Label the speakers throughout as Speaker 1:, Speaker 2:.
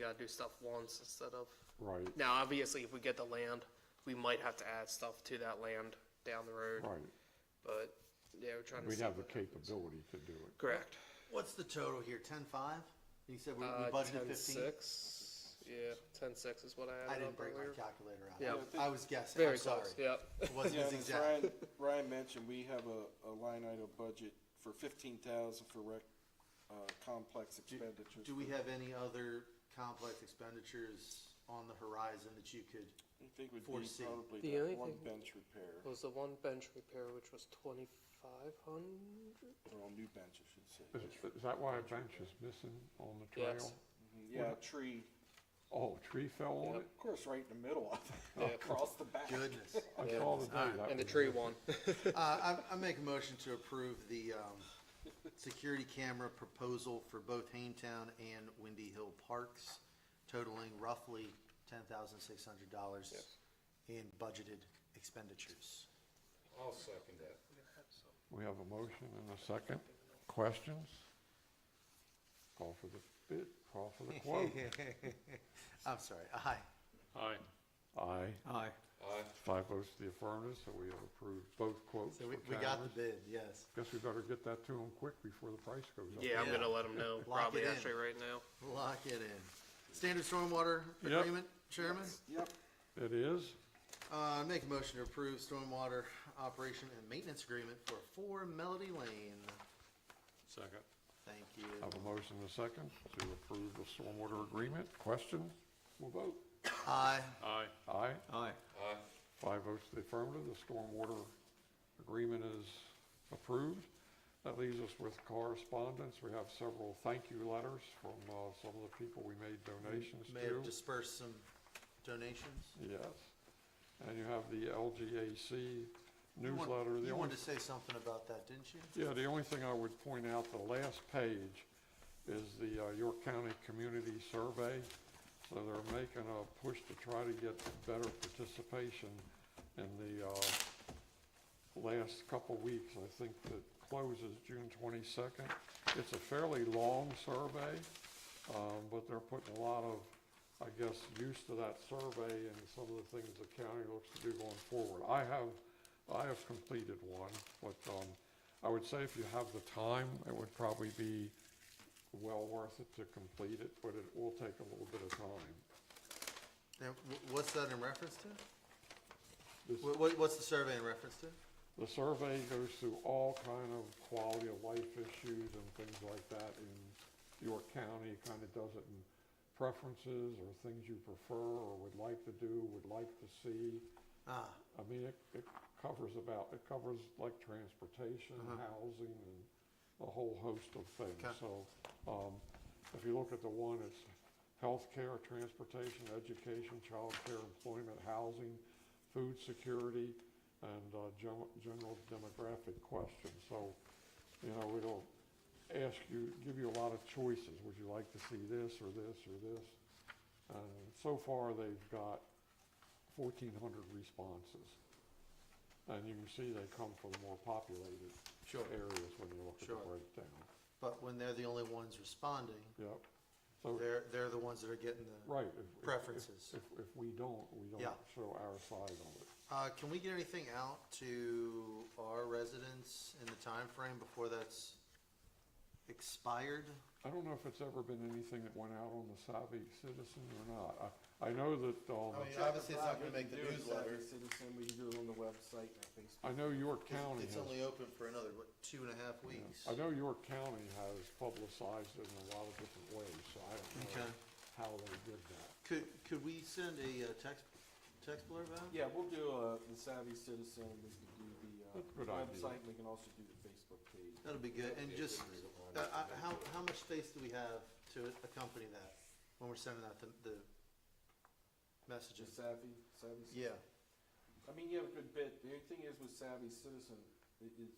Speaker 1: gotta do stuff once instead of,
Speaker 2: right,
Speaker 1: now, obviously, if we get the land, we might have to add stuff to that land down the road,
Speaker 2: right.
Speaker 1: but, yeah, we're trying to.
Speaker 2: We'd
Speaker 1: see
Speaker 2: have the
Speaker 1: what happens.
Speaker 2: capability to do it.
Speaker 1: Correct.
Speaker 3: What's the total here, ten-five? You said we
Speaker 1: Uh,
Speaker 3: we budgeted fifteen?
Speaker 1: ten-six, yeah, ten-six is what I
Speaker 3: I
Speaker 1: added up
Speaker 3: didn't break my
Speaker 1: earlier.
Speaker 3: calculator
Speaker 1: Yeah.
Speaker 3: out. I was guessing,
Speaker 1: Very
Speaker 3: I'm sorry.
Speaker 1: close, yep.
Speaker 3: It wasn't
Speaker 4: Yeah,
Speaker 3: as
Speaker 4: and
Speaker 3: exact.
Speaker 4: Ryan, Ryan mentioned, we have a, a line item budget for fifteen thousand for rec, uh, complex expenditures.
Speaker 3: Do we have any other complex expenditures on the horizon that you could,
Speaker 4: I think would be
Speaker 3: foresee?
Speaker 4: probably
Speaker 1: The only
Speaker 4: that one
Speaker 1: thing-
Speaker 4: bench repair,
Speaker 1: Was the one bench repair, which was twenty-five hundred?
Speaker 4: or a new bench, I should say.
Speaker 2: Is, is that why a bench is missing on the
Speaker 1: Yes.
Speaker 2: trail?
Speaker 4: Mhm, Yeah, a tree,
Speaker 2: Oh, a tree fell on
Speaker 1: Yep.
Speaker 2: it?
Speaker 4: of course, right in the middle of
Speaker 1: Yeah.
Speaker 4: it, across the back.
Speaker 3: goodness.
Speaker 2: I saw the day that.
Speaker 1: And the
Speaker 2: was
Speaker 1: tree
Speaker 2: missing.
Speaker 1: one.
Speaker 3: Uh, I, I make a motion to approve the, um, security camera proposal for both Hametown and Windy Hill Parks totaling roughly ten thousand six hundred dollars in budgeted expenditures.
Speaker 5: I'll second that.
Speaker 2: We have a motion and a second. Questions? Call for the bid, call for the quote.
Speaker 3: I'm sorry, aye.
Speaker 6: Aye.
Speaker 2: Aye.
Speaker 3: Aye.
Speaker 5: Aye.
Speaker 2: Five votes to the affirmative, so we have approved both quotes
Speaker 3: So
Speaker 2: for
Speaker 3: we,
Speaker 2: cameras.
Speaker 3: we got the bid, yes.
Speaker 2: Guess we better get that to them quick before the price goes up.
Speaker 1: Yeah, I'm
Speaker 3: Yeah.
Speaker 1: gonna let them know,
Speaker 3: Lock
Speaker 1: probably
Speaker 3: it in.
Speaker 1: actually right now.
Speaker 3: Lock it in. Standard stormwater
Speaker 2: Yep.
Speaker 3: agreement, Chairman?
Speaker 4: Yep,
Speaker 2: It is?
Speaker 3: Uh, make a motion to approve stormwater operation and maintenance agreement for four Melody Lane.
Speaker 6: Second.
Speaker 3: Thank
Speaker 2: I Have
Speaker 3: you.
Speaker 2: a motion and a second to approve the stormwater agreement. Questions? We'll vote.
Speaker 3: Aye.
Speaker 6: Aye.
Speaker 2: Aye.
Speaker 3: Aye.
Speaker 5: Aye.
Speaker 2: Five votes to the affirmative, the stormwater agreement is approved. That leaves us with correspondence. We have several thank you letters from uh, some of the people we made donations
Speaker 3: May have
Speaker 2: to.
Speaker 3: dispersed some donations.
Speaker 2: Yes. And you have the LGAC
Speaker 3: You want-
Speaker 2: newsletter. The only,
Speaker 3: You wanted to say something about that, didn't you?
Speaker 2: yeah, the only thing I would point out, the last page is the uh, York County Community Survey. So they're making a push to try to get better participation in the uh, last couple weeks. I think that closes June 22nd. It's a fairly long survey, um, but they're putting a lot of, I guess, use to that survey and some of the things the county looks to do going forward. I have, I have completed one, but um, I would say if you have the time, it would probably be well worth it to complete it, but it will take a little bit of time.
Speaker 3: Now, wh- what's that in reference to?
Speaker 2: This-
Speaker 3: What, what, what's the survey in reference to?
Speaker 2: The survey goes through all kind of quality of life issues and things like that in York County. Kind of does it in preferences or things you prefer or would like to do, would like to see.
Speaker 3: Ah,
Speaker 2: I mean, it, it covers about, it covers like transportation, housing, and a whole host of things.
Speaker 3: Okay.
Speaker 2: So, um, if you look at the one, it's healthcare, transportation, education, childcare, employment, housing, food security, and, uh, gen- general demographic questions. So, you know, it'll ask you, give you a lot of choices. Would you like to see this or this or this? And so far, they've got fourteen hundred responses. And you can see they come from more populated
Speaker 3: Sure.
Speaker 2: areas when you look at the
Speaker 3: Sure.
Speaker 2: breakdown.
Speaker 3: but when they're the only ones responding,
Speaker 2: Yep. So,
Speaker 3: they're, they're the ones that are getting the.
Speaker 2: right. if- if- if-
Speaker 3: Preferences.
Speaker 2: If, if we don't, we
Speaker 3: Yeah.
Speaker 2: don't show our side on it.
Speaker 3: Uh, can we get anything out to our residents in the time frame before that's expired?
Speaker 2: I don't know if it's ever been anything that went out on the savvy citizen or not. I, I know that, um,
Speaker 3: mean, obviously, it's not gonna make Oh, the
Speaker 4: Do it,
Speaker 3: newsletter.
Speaker 4: Savvy Citizen, we can do it on the website, and I think.
Speaker 2: I know York County
Speaker 3: It's
Speaker 2: has
Speaker 3: only open for another, what, two and a half weeks?
Speaker 2: I know York County has publicized it in a lot of different ways, so I don't know
Speaker 3: Okay.
Speaker 2: how they did that.
Speaker 3: Could, could we send a uh, text, text blurb out?
Speaker 4: Yeah, we'll do, uh, the Savvy Citizen, we can do the,
Speaker 2: That's a good
Speaker 4: uh,
Speaker 2: idea.
Speaker 4: website, we can also do the Facebook page.
Speaker 3: That'll be good, and just, uh, uh, how, how much space do we have to accompany that when we're sending out the, the messages?
Speaker 4: Just Savvy, Savvy. Citizen.
Speaker 3: Yeah,
Speaker 4: I mean, you have a good bit. The only thing is with savvy citizen, it is,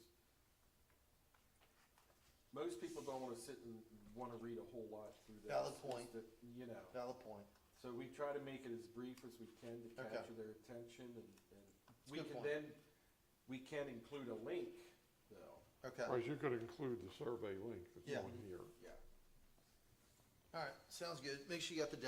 Speaker 4: most people don't wanna sit and wanna read a whole lot through that.
Speaker 3: Valid
Speaker 4: It's
Speaker 3: point.
Speaker 4: that, You know,
Speaker 3: valid point.
Speaker 4: so we try to make it as brief as we can to
Speaker 3: Okay.
Speaker 4: capture their attention and, and we
Speaker 3: good point.
Speaker 4: can then, we can include a link though.
Speaker 3: Okay, all
Speaker 2: Or you could include the survey link that's
Speaker 3: Yeah.
Speaker 2: on here.
Speaker 4: Yeah.
Speaker 3: right, sounds good. Make sure you got the